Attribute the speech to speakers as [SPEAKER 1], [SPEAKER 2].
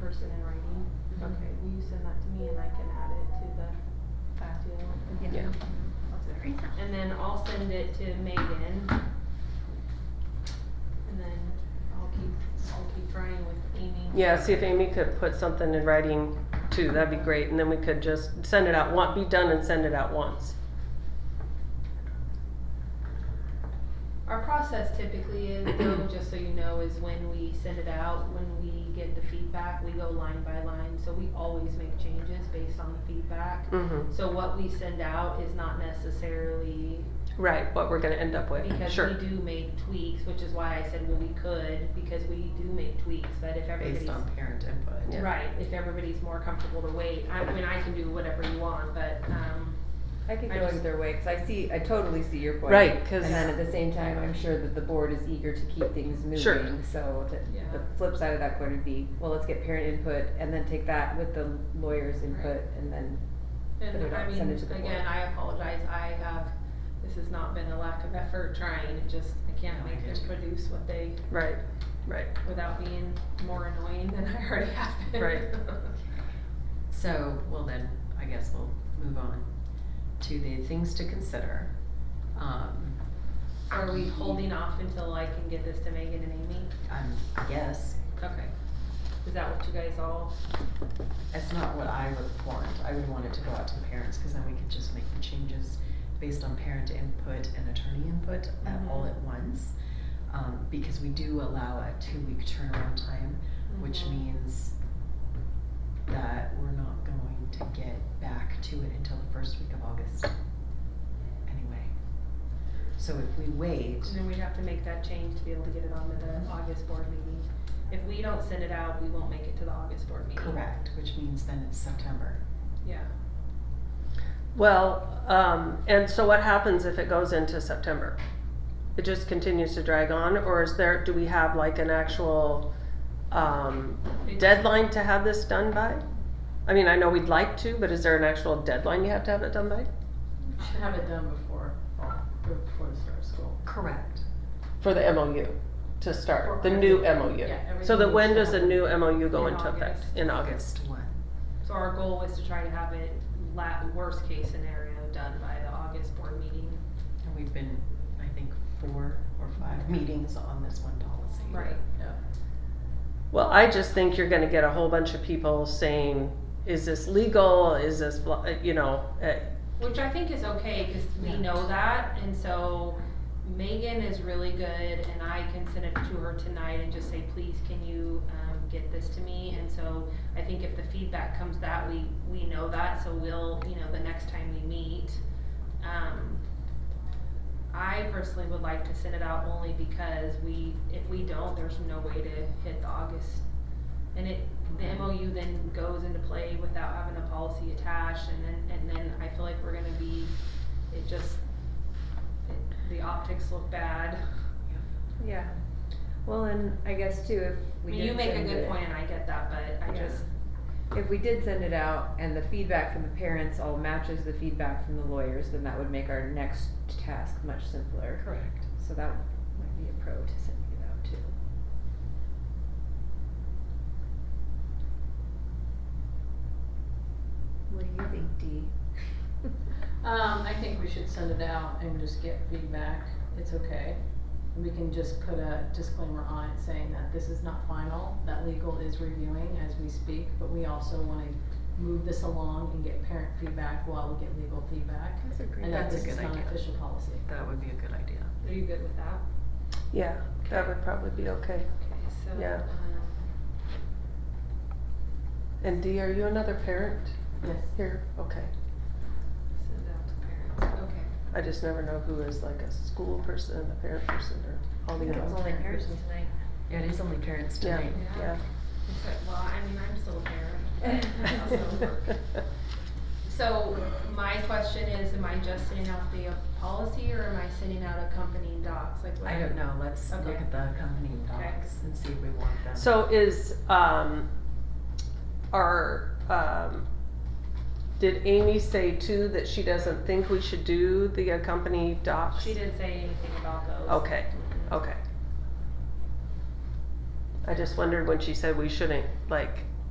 [SPEAKER 1] person in writing?
[SPEAKER 2] Mhm.
[SPEAKER 1] Okay, will you send that to me and I can add it to the
[SPEAKER 2] File.
[SPEAKER 1] deal?
[SPEAKER 3] Yeah.
[SPEAKER 2] I'll do it right now.
[SPEAKER 1] And then I'll send it to Megan. And then I'll keep, I'll keep trying with Amy.
[SPEAKER 3] Yeah, see if Amy could put something in writing too, that'd be great, and then we could just send it out, want, be done and send it out once.
[SPEAKER 1] Our process typically is, though, just so you know, is when we send it out, when we get the feedback, we go line by line, so we always make changes based on the feedback.
[SPEAKER 3] Mm-hmm.
[SPEAKER 1] So what we send out is not necessarily,
[SPEAKER 3] Right, what we're gonna end up with,
[SPEAKER 1] because
[SPEAKER 3] sure.
[SPEAKER 1] we do make tweaks, which is why I said, well, we could, because we do make tweaks, but if everybody's.
[SPEAKER 2] Based on parent input.
[SPEAKER 3] Yeah.
[SPEAKER 1] Right, if everybody's more comfortable to wait, I I mean, I can do whatever you want, but, um,
[SPEAKER 4] I could
[SPEAKER 1] I
[SPEAKER 4] go
[SPEAKER 1] just-
[SPEAKER 4] either way, cause I see, I totally see your point.
[SPEAKER 3] Right, 'cause-
[SPEAKER 4] And then at the same time, I'm sure that the board is eager to keep things
[SPEAKER 3] Sure.
[SPEAKER 4] moving, so the,
[SPEAKER 1] Yeah.
[SPEAKER 4] the flip side of that coin would be, well, let's get parent input and then take that with the lawyer's input and then, Put it
[SPEAKER 1] and I
[SPEAKER 4] out,
[SPEAKER 1] mean,
[SPEAKER 4] send it to the board.
[SPEAKER 1] again, I apologize, I have, this has not been a lack of effort trying, it just, I can't
[SPEAKER 2] No, I
[SPEAKER 1] make
[SPEAKER 2] get
[SPEAKER 1] them
[SPEAKER 2] you.
[SPEAKER 1] produce what they,
[SPEAKER 3] Right, right.
[SPEAKER 1] without being more annoying than I already have been.
[SPEAKER 3] Right.
[SPEAKER 2] So, well then, I guess we'll move on to the things to consider. Um,
[SPEAKER 1] Are we holding off until I can get this to Megan and Amy?
[SPEAKER 2] um, I guess,
[SPEAKER 1] Okay. Is that what you guys all,
[SPEAKER 2] that's not what I would want. I would want it to go out to the parents, cause then we could just make the changes based on parent input and attorney input at all
[SPEAKER 1] Mhm.
[SPEAKER 2] at once. Um, because we do allow a two-week turnaround time, which
[SPEAKER 1] Mhm.
[SPEAKER 2] means that we're not going to get back to it until the first week of August, anyway. So if we wait,
[SPEAKER 1] and then we'd have to make that change to be able to get it onto the August board meeting. If we don't send it out, we won't make it to the August board meeting.
[SPEAKER 2] correct, which means then it's September.
[SPEAKER 1] Yeah.
[SPEAKER 3] Well, um, and so what happens if it goes into September? It just continues to drag on, or is there, do we have like an actual, um,
[SPEAKER 1] It-
[SPEAKER 3] deadline to have this done by? I mean, I know we'd like to, but is there an actual deadline you have to have it done by?
[SPEAKER 5] Should have it done before, fall, or before the start of school.
[SPEAKER 2] Correct.
[SPEAKER 3] For the MOU, to start,
[SPEAKER 5] For
[SPEAKER 3] the new
[SPEAKER 5] everything.
[SPEAKER 3] MOU.
[SPEAKER 5] Yeah,
[SPEAKER 3] So that
[SPEAKER 5] everything
[SPEAKER 3] when
[SPEAKER 5] needs
[SPEAKER 3] does
[SPEAKER 5] to
[SPEAKER 3] the
[SPEAKER 5] happen.
[SPEAKER 3] new MOU go
[SPEAKER 1] In
[SPEAKER 3] into effect?
[SPEAKER 1] August.
[SPEAKER 3] In
[SPEAKER 2] August
[SPEAKER 3] August.
[SPEAKER 2] one.
[SPEAKER 1] So our goal is to try to have it la- worst case scenario done by the August board meeting.
[SPEAKER 2] And we've been, I think, four or five meetings on this one policy.
[SPEAKER 1] Right.
[SPEAKER 3] Well, I just think you're gonna get a whole bunch of people saying, is this legal, is this, blah- uh, you know, uh,
[SPEAKER 1] Which I think is okay, cause we
[SPEAKER 2] Yeah.
[SPEAKER 1] know that, and so Megan is really good, and I can send it to her tonight and just say, please, can you, um, get this to me? And so I think if the feedback comes that, we, we know that, so we'll, you know, the next time we meet, um, I personally would like to send it out only because we, if we don't, there's no way to hit the August. And it, the MOU then goes into play without having a policy attached, and then, and then I feel like we're gonna be, it just, it- the optics look bad.
[SPEAKER 4] yeah. Well, and I guess too, if
[SPEAKER 1] I
[SPEAKER 4] we
[SPEAKER 1] mean,
[SPEAKER 4] did
[SPEAKER 1] you make a
[SPEAKER 4] send
[SPEAKER 1] good
[SPEAKER 4] it-
[SPEAKER 1] point, and I get that, but I
[SPEAKER 4] Yeah.
[SPEAKER 1] just,
[SPEAKER 4] If we did send it out and the feedback from the parents all matches the feedback from the lawyers, then that would make our next task much simpler.
[SPEAKER 2] Correct.
[SPEAKER 4] So that might be a pro to sending it out too. What do you think, Dee?
[SPEAKER 5] Um, I think we should send it out and just get feedback, it's okay. We can just put a disclaimer on it saying that this is not final, that legal is reviewing as we speak, but we also wanna move this along and get parent feedback while we get legal feedback.
[SPEAKER 4] That's a
[SPEAKER 5] And that
[SPEAKER 2] That's a
[SPEAKER 5] this is
[SPEAKER 2] good
[SPEAKER 5] not an
[SPEAKER 2] idea.
[SPEAKER 5] official policy.
[SPEAKER 2] That would be a good idea.
[SPEAKER 1] are you good with that?
[SPEAKER 3] yeah, that would probably be okay.
[SPEAKER 1] Okay, so,
[SPEAKER 3] Yeah.
[SPEAKER 1] um,
[SPEAKER 3] And Dee, are you another parent
[SPEAKER 5] Yes.
[SPEAKER 3] here? Okay,
[SPEAKER 1] send out to parents, okay.
[SPEAKER 3] I just never know who is like a school person and a parent person or all the
[SPEAKER 2] Yeah.
[SPEAKER 3] other.
[SPEAKER 4] only parents tonight.
[SPEAKER 2] Yeah, it is only parents
[SPEAKER 3] Yeah,
[SPEAKER 2] tonight.
[SPEAKER 3] yeah.
[SPEAKER 1] Okay, well, I mean, I'm still a parent. I also work. So my question is, am I just sending out the policy or am I sending out accompanying docs? Like what?
[SPEAKER 2] I don't know, let's look
[SPEAKER 1] Okay.
[SPEAKER 2] at the accompanying
[SPEAKER 1] Okay.
[SPEAKER 2] docs and see if we want them.
[SPEAKER 3] So is, um, our, um, did Amy say too that she doesn't think we should do the accompany docs?
[SPEAKER 1] She didn't say anything about those.
[SPEAKER 3] Okay, okay. I just wondered when she said we shouldn't, like,